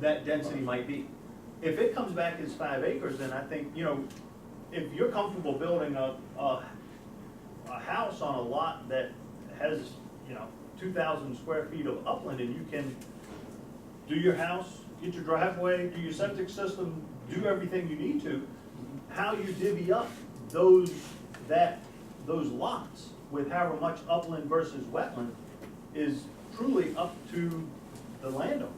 that density might be. If it comes back as five acres, then I think, you know, if you're comfortable building a, a, a house on a lot that has, you know, two thousand square feet of upland and you can do your house, get your driveway, do your septic system, do everything you need to, how you divvy up those, that, those lots with however much upland versus wetland is truly up to the landowner.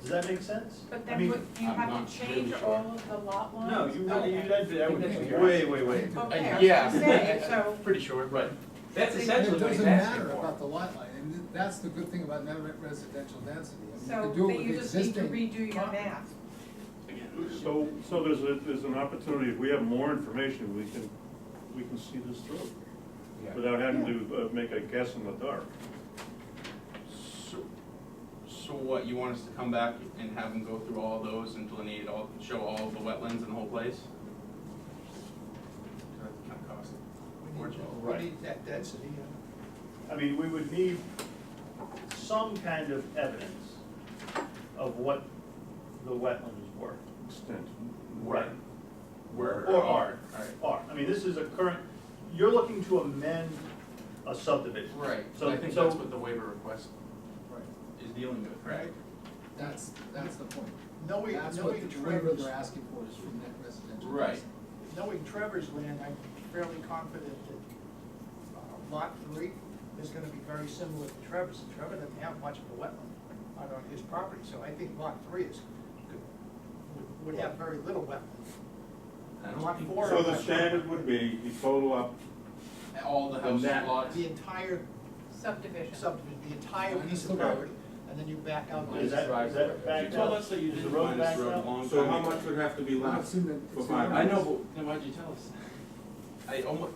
Does that make sense? But I then Oh, mean, would you I'm have not to change really sure. all of the lot lines? No, you really, you, that, that would, Okay. way, way, way. Okay, I was Yeah. gonna say, so- Pretty sure, right. That's It- essentially what he's It asking doesn't matter about for. the lot line, and th- that's the good thing about net re- residential density. I mean, So You can do it then with you just need to existing redo your property. math. So, so there's a, there's an opportunity, if we have more information, we can, we can see this through, without having to uh, make a guess in the dark. So, so what, you want us to come back and have them go through all those and delineate all, show all of the wetlands in the whole place? That's kind of costly. We need, we Right. need that density, uh, I mean, we would need some kind of evidence of what the wetlands were. Extent. Right. Where? Oh, Or are. Alright. Are, I mean, this is a current, you're looking to amend a subdivision. Right, so So- I think so- that's what the waiver request Right, is dealing with, correct? that's, that's the point. knowing, That's what knowing the waiver Trevor's, they're asking for is from net residential. Right. density. knowing Trevor's land, I'm fairly confident that uh, lot three is gonna be very similar to Trevor's. Trevor doesn't have much of a wetland on, on his property, so I think lot three is, could- would- would have very little wetland. I don't Lot think- four. So the standard would be, you total up, All the house that- lots, The entire Subdivision. subdivision, the entire Minus piece the of road. property, and then you back out. Is that, is that you backed told out? us that you Is the didn't road mind this backed road a out? long time ago. so how much would have to be It's left in the- for it's five? in the- I know, but then why'd you tell us? I almost,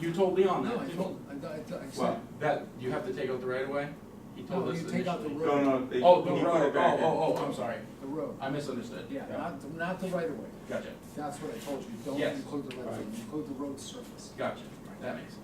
you told Leon that. No, I told, I, I, I Well, said, that, you have to take out the right of way? He told No, us you take out the initially. road. No, no, they. Oh, the he put road, it oh, back in. oh, oh, I'm sorry, the road, I misunderstood. yeah, not, the- not the right of way, Gotcha, that's what I told you, don't Yes. include the right of way, Right. include the road surface. gotcha, that makes,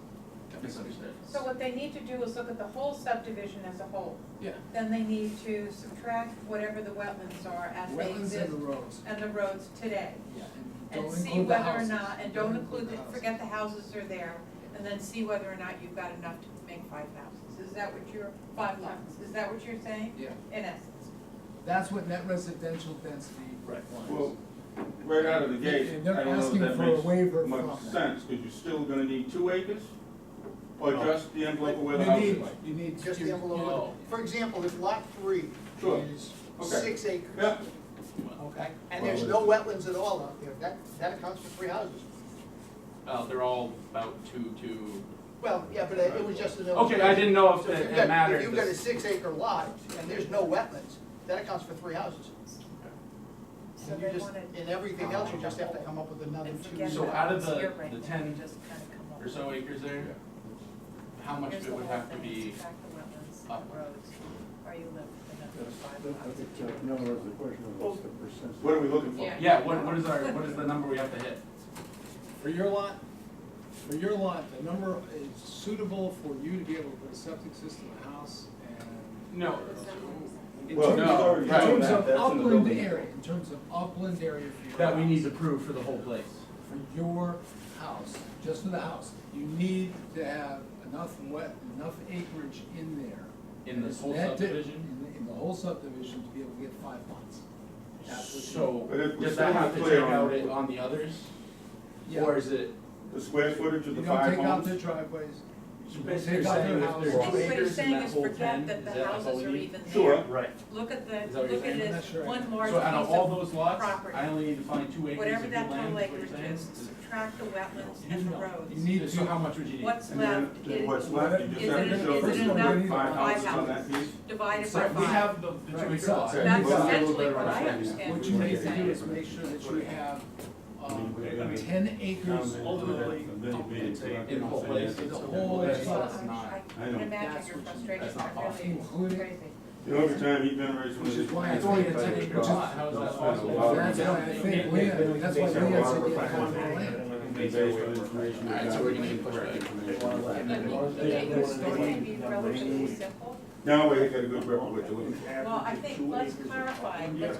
that misunderstood. So what they need to do is look at the whole subdivision as a whole. Yeah. Then they need to subtract whatever the wetlands are as they Wetlands exist and the roads, and the roads today. yeah, and And don't see include the whether or houses. not, and don't include, the- the houses. forget the houses are there, and then see whether or not you've got enough to make five houses. Is that what you're, five lots, is that what you're saying? Yeah, In essence. that's what net residential density Right. requires. Well, right out of the gate, And oh. they're I don't know if asking that for a waiver makes much from that. sense, because you're still gonna need two acres? Or No. just the envelope where the You house need- is? You need. Just you- the envelope, Oh. for example, if lot three Sure. is Okay. six acres. Yeah, Okay, and there's no wetlands at all out there, that, that accounts for three houses. Uh, they're all about two, two, Well, yeah, but it was just an. okay, I didn't know if So if you've it got- it mattered. If you've got a six acre lot and there's no wetlands, that accounts for three houses. So And you they just, want to, and everything else, you just have to come up with another and two. forget So about out of what's the- here right the now, 10 just kind of come up Or so acres there, how much of it would have to be, up. No, it's a question of what's the what are percentage? we looking for? Yeah. yeah, what, what is our, what is the number we have to hit? For your lot, for your lot, the number is suitable for you to be able to put a septic system, a house, and. No. in Well, terms no, of- sorry, In right, terms that- of that's in the upland building. area, in terms of upland area for your. That we need to house. prove for the whole place. For your house, just for the house, you need to have enough wet, enough acreage in there. In this whole That di- subdivision? In the, in the whole subdivision to be able to get five lots. That's what you- So, But if we does still that have have to clear take on- out it on the others? Yeah. Or is it? The square footage You of the don't five take out the homes? driveways. So You basically take out saying their if house. there's I think what Acres he's in saying that is whole forget 10, that is the that like what houses we are need? even there. Sure. oh, Right, Look at Is the, that what you're look at saying? it I'm as not sure I one know. large piece So out of all of those lots, property. I only need to find two acres whatever of good that land, total is what you're acreage saying? is, subtract the wetlands You and the know, roads. You need to. So how much would you need? What's And then left to is what's left, you is just have it- to show is it there's enough only five for houses five on that piece. divided So by we five. have the, the Right, two acre so- lots. so That's we've got- essentially what I What understand you what need you're to do saying. is make sure that you have, um, I mean, ten acres ultimately, in the whole place. The whole That's lot. that's not. I I can know. imagine That's your what you- frustration, that's not I really, possible. it's crazy. You know, every time he generates one of Which these. is why It's only a plans, ten it's acre got- lot, how is that possible? Well, That's why I think we had, that's why we Based had said you on a lot of had factors. common land. Based on information. All right, so we're gonna get pushed back. But They it- it- It's going to be relatively simple, Now we got a good record with the Well, I think, let's clarify, let's